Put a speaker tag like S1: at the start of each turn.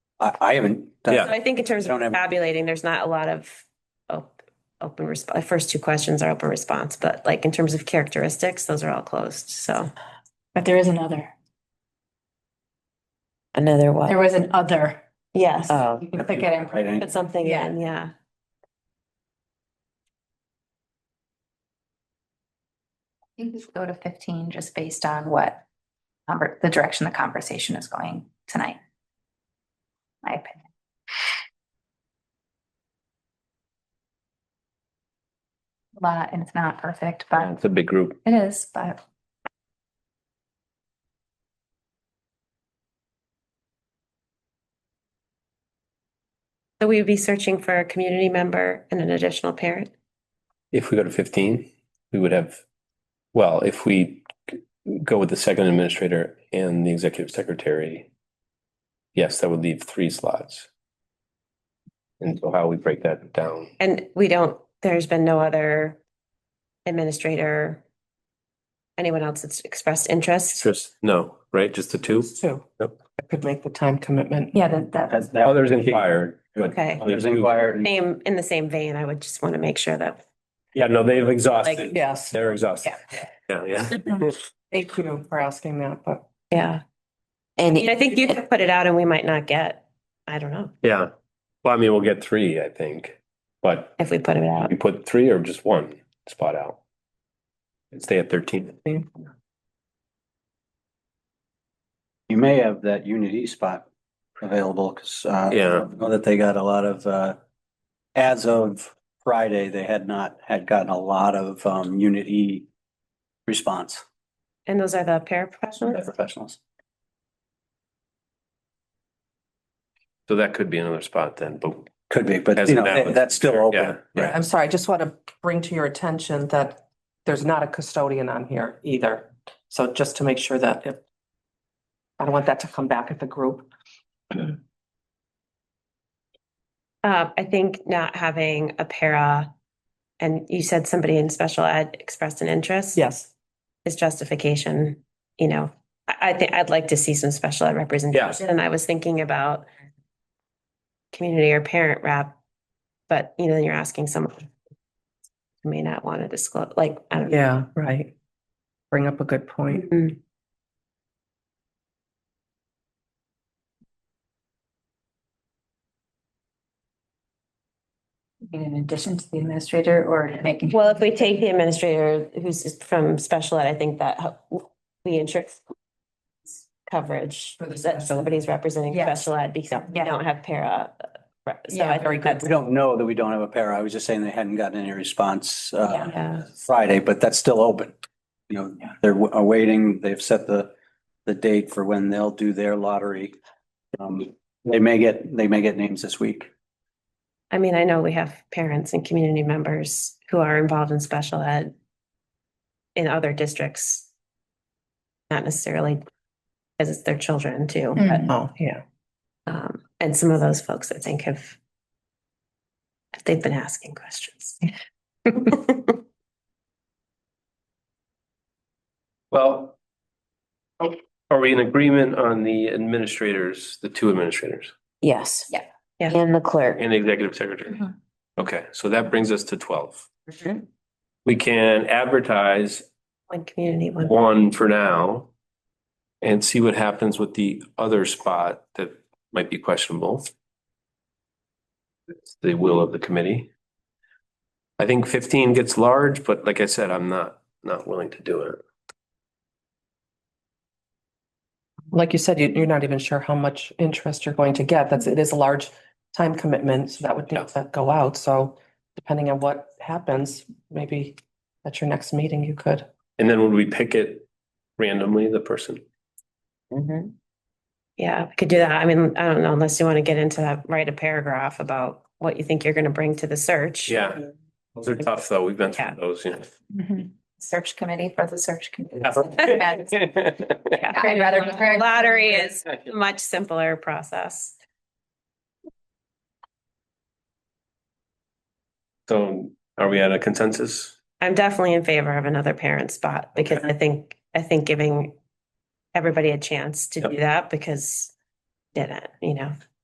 S1: I, I haven't. done-
S2: So I think in terms of
S1: Don't have-
S2: tabulating, there's not a lot of op- open response. First two questions are open response, but like in terms of characteristics, those are all closed. So
S3: But there is another.
S4: Another
S3: There
S4: one.
S3: was an other.
S4: Yes. Oh.
S3: You can click it and
S1: Right, I-
S2: put something
S3: Yeah.
S2: in, yeah.
S5: I think we should go to fifteen just based on what conver- the direction the conversation is going tonight. My opinion. A Lot, and it's not perfect,
S6: Yeah,
S5: but
S6: It's a big group.
S5: it is, but
S2: So we would be searching for a community member and an additional parent.
S6: If we go to fifteen, we would have, well, if we go with the second administrator and the executive secretary, yes, that would leave three slots. And so how we break that down,
S2: And we don't, there's been no other administrator, anyone else that's expressed interest.
S6: just, no, right, just the two?
S4: True.
S6: Yep.
S4: I could make the time commitment.
S5: yeah, that, that,
S1: That's that.
S6: Others inquired. but-
S2: Okay.
S1: Others inquired.
S2: Same, in the same vein, I would just want to make sure that,
S6: Yeah, no, they've
S2: Like-
S6: exhausted,
S4: Yes.
S6: they're exhausted, yeah, yeah.
S4: Thank you for asking that, but.
S2: yeah.
S4: And
S2: I mean, I think you could put it out and we might not get, I don't know,
S6: Yeah, well, I mean, we'll get three, I think, but
S2: if we put it out.
S6: we put three or just one spot out. And stay at thirteen.
S1: You may have that Unity spot available, cause, uh, I
S6: Yeah.
S1: Know that they got a lot of, uh, as of Friday, they had not, had gotten a lot of, um, Unity response
S2: And those are the
S1: from
S2: paraprofessionals?
S1: the professionals.
S6: So that could be another spot then, but
S1: Could be, but you
S6: Hasn't
S1: know,
S6: happened.
S1: that- that's still
S6: Yeah,
S1: open.
S6: yeah.
S4: I'm sorry, I just want to bring to your attention that there's not a custodian on here either. So just to make sure that if, I don't want that to come back at the group.
S2: Uh, I think not having a para, and you said somebody in special ed expressed an interest.
S4: Yes.
S2: Is justification, you know, I, I think, I'd like to see some special ed representation, and I was thinking about community or parent rep, but you know, then you're asking someone who may not want to disclose, like, I don't know.
S4: Yeah, right. Bring up a good point.
S2: Mm.
S5: in addition to the administrator or making.
S2: Well, if we take the administrator who's from special ed, I think that ho- we ensure coverage,
S5: For the
S2: that
S5: special.
S2: somebody's representing
S5: Yes.
S2: special ed because we
S5: Yeah.
S2: don't have para. uh, rep- So
S5: Yeah,
S2: I think that's,
S1: We don't know that we don't have a pair. I was just saying they hadn't gotten any response, uh,
S2: yeah,
S1: Friday, but that's still open. You know, they're wa- awaiting, they've set the, the date for when they'll do their lottery. Um, they may get, they may get names this week.
S2: I mean, I know we have parents and community members who are involved in special ed in other districts. Not necessarily because it's their children too,
S5: Mm.
S2: but,
S4: Oh, yeah.
S2: um, and some of those folks I think have they've been asking questions.
S6: Well, are we in agreement on the administrators, the two administrators
S7: Yes.
S5: Yeah.
S2: Yeah.
S7: And the clerk.
S6: and the executive secretary? Okay, so that brings us to twelve.
S7: Mhm.
S6: We can advertise
S2: One community, one.
S6: one for now and see what happens with the other spot that might be questionable. It's The will of the committee. I think fifteen gets large, but like I said, I'm not, not willing to do it.
S4: Like you said, you, you're not even sure how much interest you're going to get. That's, it is a large time commitment, so that would need to go out. So depending on what happens, maybe at your next meeting, you could.
S6: And then would we pick it randomly, the person?
S7: Mhm.
S2: Yeah, we could do that. I mean, I don't know, unless you want to get into that, write a paragraph about what you think you're going to bring to the search.
S6: Yeah. Those are tough, though. We've been
S2: Yeah.
S6: through those, you know.
S5: Search committee for the search committee.
S2: Yeah.
S5: I'd rather.
S2: Lottery is a much simpler process.
S6: So are we at a consensus?
S2: I'm definitely in favor of another parent spot because I think, I think giving everybody a chance to do that because didn't, you know?